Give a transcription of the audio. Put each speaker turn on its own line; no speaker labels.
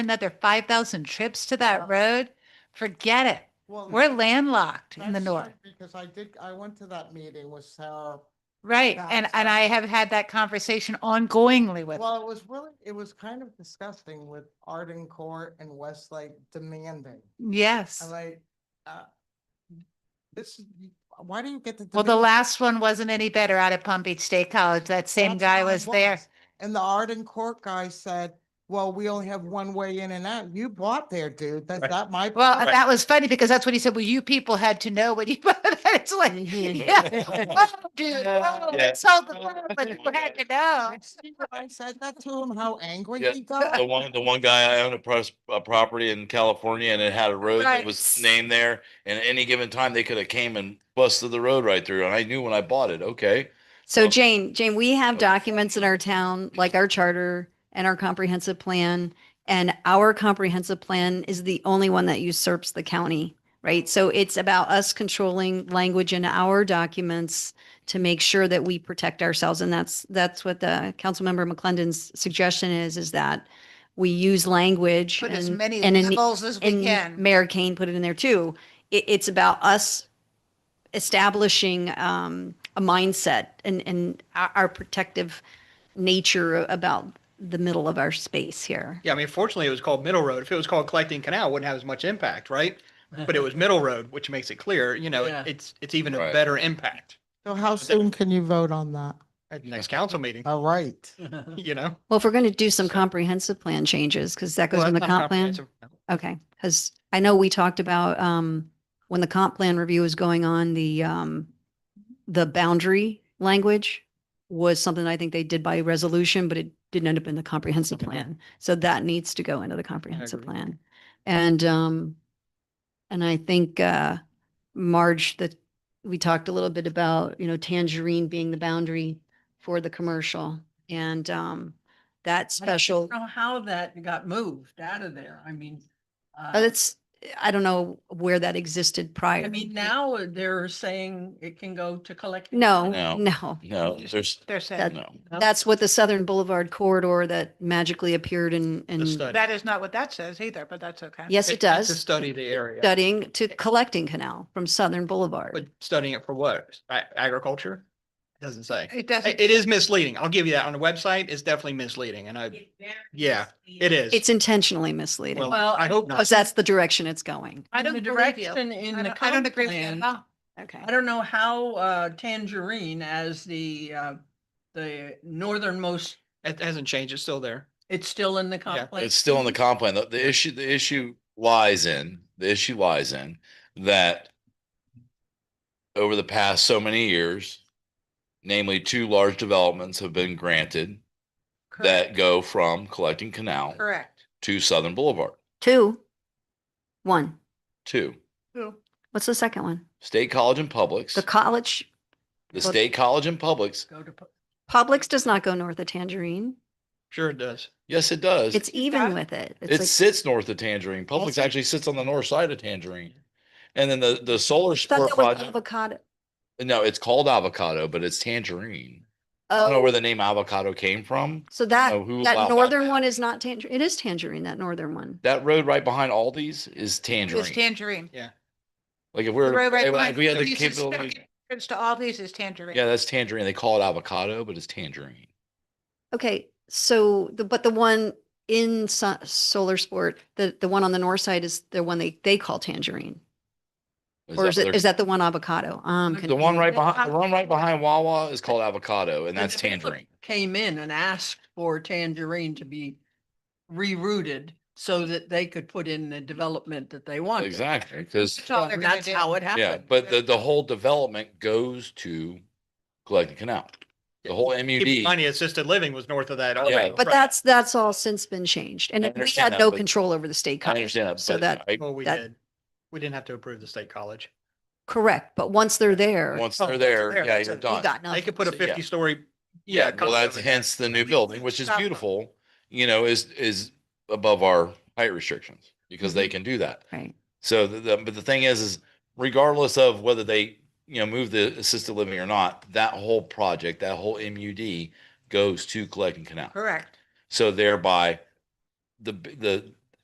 another five thousand trips to that road, forget it.
Well,
We're landlocked in the
that's
north.
right, Because I did, I went to that meeting with Sarah.
Right. And,
That's
and I have had that conversation ongoingly with,
Well, it was really, it was kind of disgusting with Arden Court and Westlake demanding. I'm
yes.
like, uh, this, is why do you get to?
Well, the
demand-
last one wasn't any better out at Palm Beach State College. That same
That's
guy
how it
was there.
And the Arden Court guy said, well, we only have one way in and out. You bought there, dude. That's
Right.
not my.
Well,
problem."
that was funny because that's what he said. Well, you people had to know what you, it's like, yeah. oh, Dude, oh,
Yeah.
they sold the world, but you had to know.
I said that to him, how angry
Yeah.
he got.
The one, the one guy I owned a pros- a property in California and it had a road
Right.
that was named there. And at any given time, they could have came and busted the road right through. And I knew when I bought it, okay.
So
Oh.
Jane, Jane, we have
Oh.
documents in our town, like our charter and our comprehensive plan. And our comprehensive plan is the only one that usurps the county, right? So it's about us controlling language in our documents to make sure that we protect ourselves. And that's, that's what the Councilmember McClendon's suggestion is, is that we use language.
Put as
and-
many
and in-
levels as we
and
can.
Mayor Kane put it in there too. It, it's about us establishing um, a mindset and, and our, our protective nature about the middle of our space here.
Yeah, I mean, fortunately, it was called Middle Road. If it was called Collecting Canal, it wouldn't have as much impact, right? But it was Middle Road, which makes it clear, you know,
Yeah.
it's, it's even a
Right.
better impact
So how soon can you vote on that?
at the next council meeting,
All right.
you know?
Well, if we're going to do some comprehensive plan changes, because that goes
Well,
in the
that's not
comp plan.
comprehensive.
Okay, because I know we talked about um, when the comp plan review was going on, the um, the boundary language was something I think they did by resolution, but it didn't end up in the comprehensive plan. So that needs to go into the comprehensive
agree.
plan. And um, and I think uh, Marge, that we talked a little bit about, you know, tangerine being the boundary for the commercial and um, that special.
know how that got moved out of there. I mean,
Oh,
Uh,
uh,
That's, I don't know where that existed prior.
I mean, now they're saying it can go to collect.
No,
Mm-hmm.
No.
no.
No, there's,
They're
That-
saying,
no.
That's what the Southern Boulevard corridor that magically appeared in,
The
in,
study.
that is not what that says either, but that's okay.
yes, it
It's- it's To
does.
study the area,
Studying to collecting canal from Southern
but
Boulevard.
studying it for what? A- Agriculture? Doesn't say.
It
I-
doesn't.
It is misleading. I'll give you that. On the website, it's definitely misleading and I, yeah, it is.
It's intentionally misleading
Well,
Well,
I hope not.
because that's the direction it's going.
I
In
don't
the
believe you.
direction in
I
the
don't- I don't
comp
agree with you at
plan.
all.
Okay.
I don't know how uh, Tangerine as the, uh, the northernmost,
It hasn't changed. It's still there.
it's still in the
Yeah,
comp plan.
It's still in the comp plan. The, the issue, the issue lies in, the issue lies in that over the past so many years, namely two large developments have been granted that
Correct.
go from collecting canal
Correct.
to Southern Boulevard,
Two. One.
two.
What's the second one?
State College and Publix,
The college,
the
well-
State College and Publix.
Go to, pu-
Publix does not go north of Tangerine.
Sure it does.
Yes, it does.
It's even with it.
It
It's like,
sits north of Tangerine. Publix actually sits on the north side of Tangerine. And then the, the solar
I thought
sport
that was
project,
avocado.
no, it's called avocado, but it's Tangerine. I don't know
Oh,
where the name avocado came from.
so that,
know who allowed
that
that.
northern one is not tangerine. It is tangerine, that northern one.
That road right behind Aldi's
It's
is Tangerine.
tangerine.
Like if
The
we're,
road right
if
behind
we had the
Aldi's is-
capability,
Entrance to all these is tangerine.
yeah, that's Tangerine. They call it avocado, but it's Tangerine.
Okay, so the, but the one in Su- Solar Sport, the, the one on the north side is the one they, they call Tangerine? Or
that
is it,
their-
is that the one avocado? Um,
The one right
Yeah.
behind, the one right behind Wawa is called avocado and
The
that's
developer
Tangerine.
Came in and asked for Tangerine to be rerouted so that they could put in the development that they wanted.
Exactly, because
That's all
Well,
they're
and
gonna
That's
do.
how it
Yeah,
happened.
but the, the whole development goes to collecting canal. The whole
Keep in
MUD,
mind, the assisted living was north of that. already.
but
Right.
that's, that's all since been changed and
I
we
understand
had
that,
no
but-
control over the state
I
college.
understand that.
So
but
that,
I-
Well, we
that-
did. We didn't have to approve the state college.
correct, but once they're there,
Once
Oh,
they're
once
there,
they're
yeah,
there,
you're
that's it.
done.
we got
They
nothing.
could put a
Oh, So, yeah.
fifty story.
Yeah, well,
condo
that's
in there.
hence the new building, which is
Stop.
beautiful, you know, is, is above our height restrictions because they can do that.
Right.
So the, the, but the thing is, is regardless of whether they, you know, move the assisted living or not, that whole project, that whole MUD goes to collecting canal.
Correct.
So thereby, the, b- the,